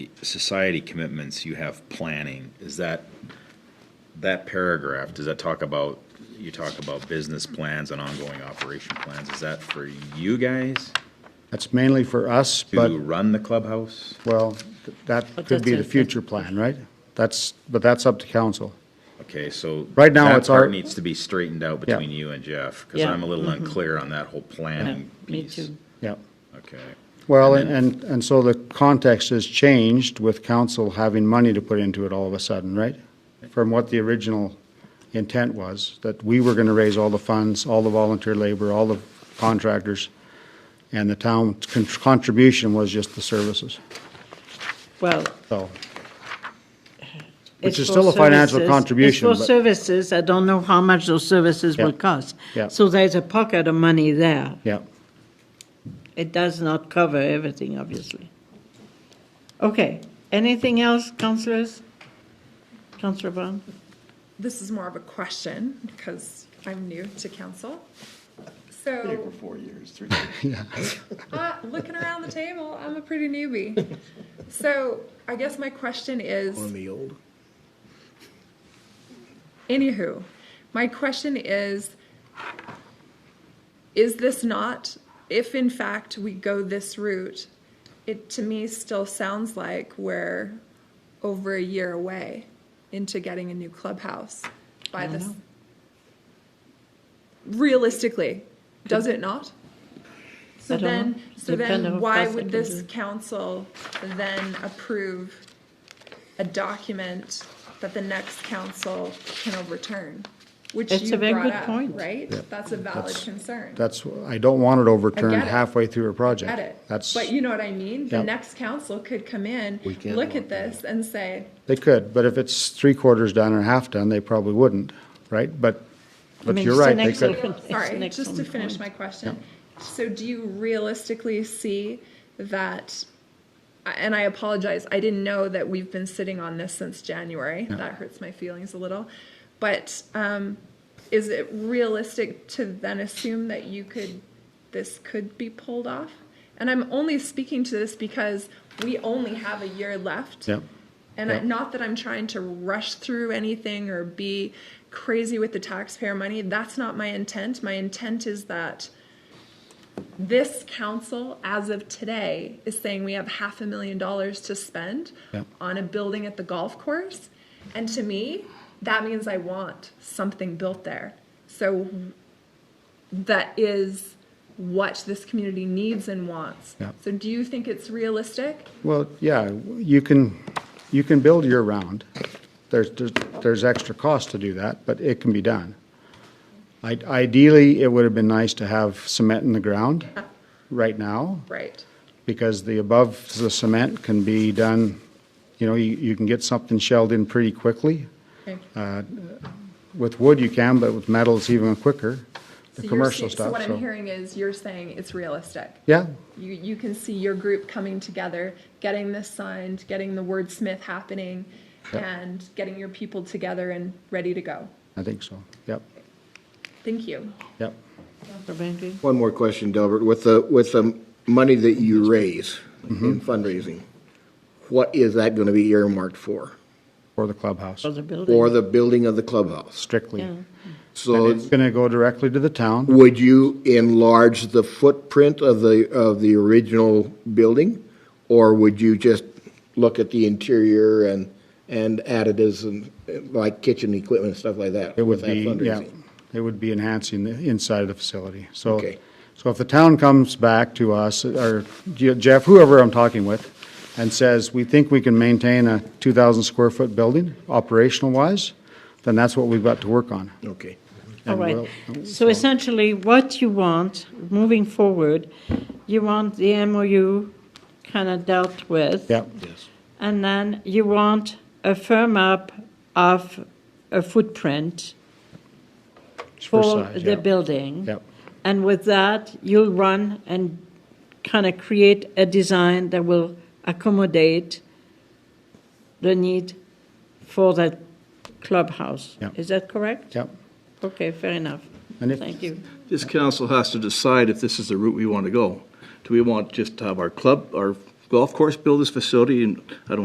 society commitments, you have planning. Is that, that paragraph, does that talk about, you talk about business plans and ongoing operation plans? Is that for you guys That's mainly for us, but, to run the clubhouse? well, th- that But could be the that's a- future plan, right? That's, but that's up to council. Okay, so. Right now, that it's our- part Needs to be straightened out Yeah. between you and Jeff, because Yeah, Mm-hmm. I'm a little unclear on that whole Um, planning Um, Me piece. too. Yep. Okay. Well, and, and and so the context has changed with council having money to put into it all of a sudden, right? From what the original intent was, that we were gonna raise all the funds, all the volunteer labor, all the contractors, and the town's con- contribution was just the services, Well. so. it's is for still a financial services- contribution, It's for but- services, I don't know how much those services will Yeah. cost. Yeah. So there's a pocket of money there. Yeah, It does not cover everything, obviously. Okay, anything else, councillors? Councillor Brown? This is more of a question because I'm new to council. So, four years, three uh, looking around the table, I'm a pretty newbie. So I guess my question is, the old. anywho, my question is, is this not, if in fact we go this route, it to me still sounds like we're over a year away into getting a new clubhouse by this. Realistically, does it not? So I don't know. then, so Depend on then what why else I would can this do. council then approve a document that the next council can overturn? Which It's a you very brought good up, point. right? That's a valid concern. that's, I don't want it overturned it. halfway through a project. Get it? That's, But you know what I mean? The Yep. next council could come in, We can look at look at this and say, they could, but if it's three quarters done or half done, they probably wouldn't, right? But, but mean, you're it's the right, they next could. open- it's the Sorry, next just to open finish point. my question. So do you realistically see that, and I apologize, I didn't know that we've been sitting on this since January. That hurts my feelings a little. But um, is it realistic to then assume that you could, this could be pulled off? And I'm only speaking to this because we only have a year left. Yep. And I, Yep. not that I'm trying to rush through anything or be crazy with the taxpayer money. That's not my intent. My intent is that this council, as of today, is saying we have half a million dollars to spend Yep. on a building at the golf course. And to me, that means I want something built there. So that is what this community needs and wants. Yep. So do you think it's realistic? Well, yeah, you can, you can build year-round. There's, there's- there's extra cost to do that, but it can be done. I- Ideally, it would have been nice to have cement in the ground right now, Right. because the above the cement can be done, you know, you, you can get something shelled in pretty quickly. Okay. Uh, With wood you can, but with metal it's even quicker, the So you're commercial see- So stuff, what I'm so. hearing is you're saying it's realistic. Yeah, You, you can see your group coming together, getting this signed, getting the wordsmith happening, and getting your people together and ready to go. I think so, yep, Thank you. yep. Councillor Bainbridge? One more question, Delbert, with the, with the money that you raise Mm-hmm. in fundraising, what is that gonna be earmarked for? For the clubhouse, For the building? Or the building of the clubhouse? strictly. Yeah. So It's gonna go directly to the town. would you enlarge the footprint of the, of the original building? Or would you just look at the interior and, and additives and uh, like kitchen equipment and stuff like that? It would with that be, yeah, fundraising? it would be enhancing the inside of the facility. So, Okay. so if the town comes back to us, or Je- Jeff, whoever I'm talking with, and says, we think we can maintain a 2,000 square foot building, operational wise, then that's what we've got to work on. Okay. All And right. we'll- So essentially, what you want, moving forward, you want the MOU kind of dealt with. Yeah, And then you want a firm up of a footprint for for size, the yeah. building. Yep. And with that, you'll run and kind of create a design that will accommodate the need for that clubhouse. Yep. Is that correct? Yep. Okay, fair enough. And if- Thank you. This council has to decide if this is the route we want to go. Do we want just to have our club, our golf course build this facility, and I don't